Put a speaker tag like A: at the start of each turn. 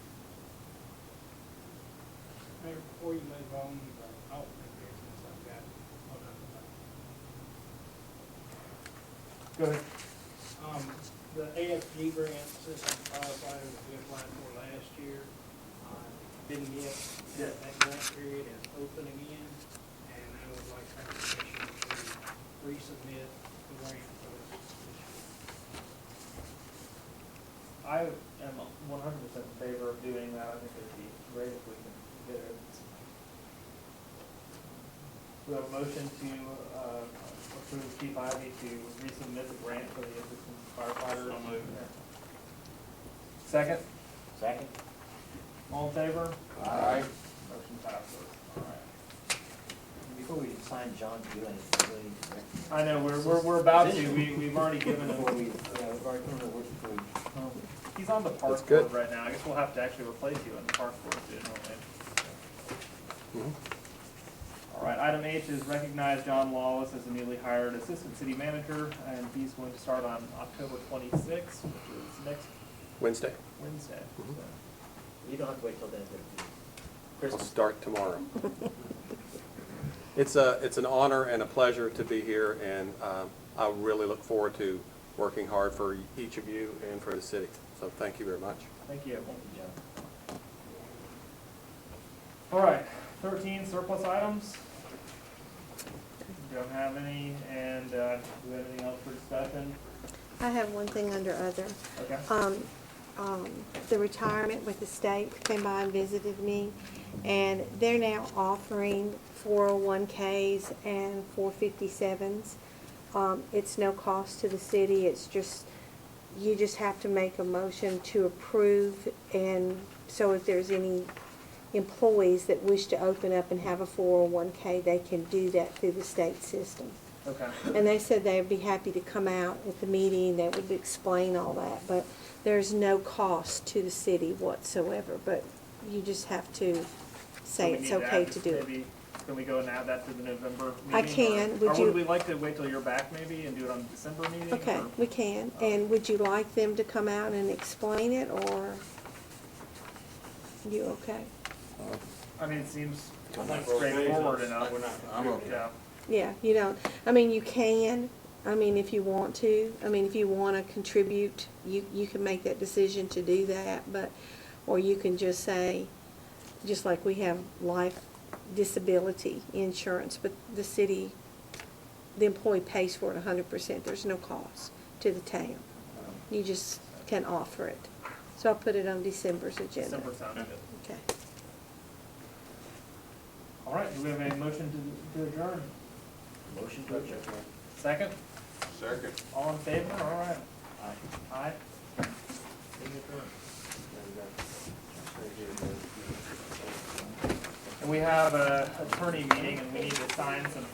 A: there before you move on, but I don't think there's anything like that. Hold on, hold on.
B: Go ahead.
A: Um, the AFG grant system qualifier that we applied for last year, uh, didn't get, that that grant period is open again, and I would like our commission to resubmit the grant for this this year.
B: I am one hundred percent in favor of doing that, I think it'd be great if we can get it. We have a motion to, uh, approve Chief Ivy to resubmit the grant for the assistant firefighter.
C: So moved.
B: Second,
C: Second?
B: all in favor?
C: Aye.
B: Motion passes. All right.
C: Before we sign John to do anything, we need to recognize.
B: I know, we're, we're, we're about to, we, we've already given
C: Before we,
B: him,
C: yeah, we've already given the word before we.
B: he's on the
D: That's
B: park
D: good.
B: board right now, I guess we'll have to actually replace you on the park board soon, won't we? All right, item H is recognize John Lawless as the newly hired assistant city manager, and he's going to start on October twenty-sixth, which is next
D: Wednesday.
B: Wednesday. so.
C: You don't have to wait till then, but
D: I'll start tomorrow. It's a, it's an honor and a pleasure to be here, and um, I really look forward to working hard for each of you and for the city. So thank you very much.
B: Thank you. All right, thirteen surplus items. Don't have any, and, uh, do we have anything else for discussion?
E: I have one thing under other.
B: Okay.
E: Um, um, the retirement with the state came by and visited me, and they're now offering four oh one Ks and four fifty-sevens. Um, it's no cost to the city, it's just, you just have to make a motion to approve, and so if there's any employees that wish to open up and have a four oh one K, they can do that through the state system.
B: Okay,
E: And they said they'd be happy to come out at the meeting, they would explain all that, but there's no cost to the city whatsoever, but you just have to
B: So
E: say
B: we
E: it's
B: need to
E: okay
B: add-
E: to do it.
B: maybe- Can we go and add that to the November meeting?
E: I
B: or-
E: can. Would
B: Or
E: you-
B: would we like to wait till you're back maybe and do it on the December meeting?
E: Okay,
B: or-
E: we can, and would you like them to come out and explain it, or you okay?
B: I mean, it seems
C: I think we're okay.
B: straightforward enough.
C: I'm
B: Yeah,
E: Yeah, you don't, I mean, you can, I mean, if you want to, I mean, if you wanna contribute, you, you can make that decision to do that, but, or you can just say, just like we have life disability insurance, but the city, the employee pays for it hundred percent, there's no cost to the town. You just can offer it. So I'll put it on December's agenda.
B: December sounded good.
E: Okay.
B: All right, do we have a motion to to adjourn?
C: Motion to adjourn.
B: Second?
D: Second.
B: All in favor? All right.
C: Aye.
B: Aye. And we have a attorney meeting and we need to sign some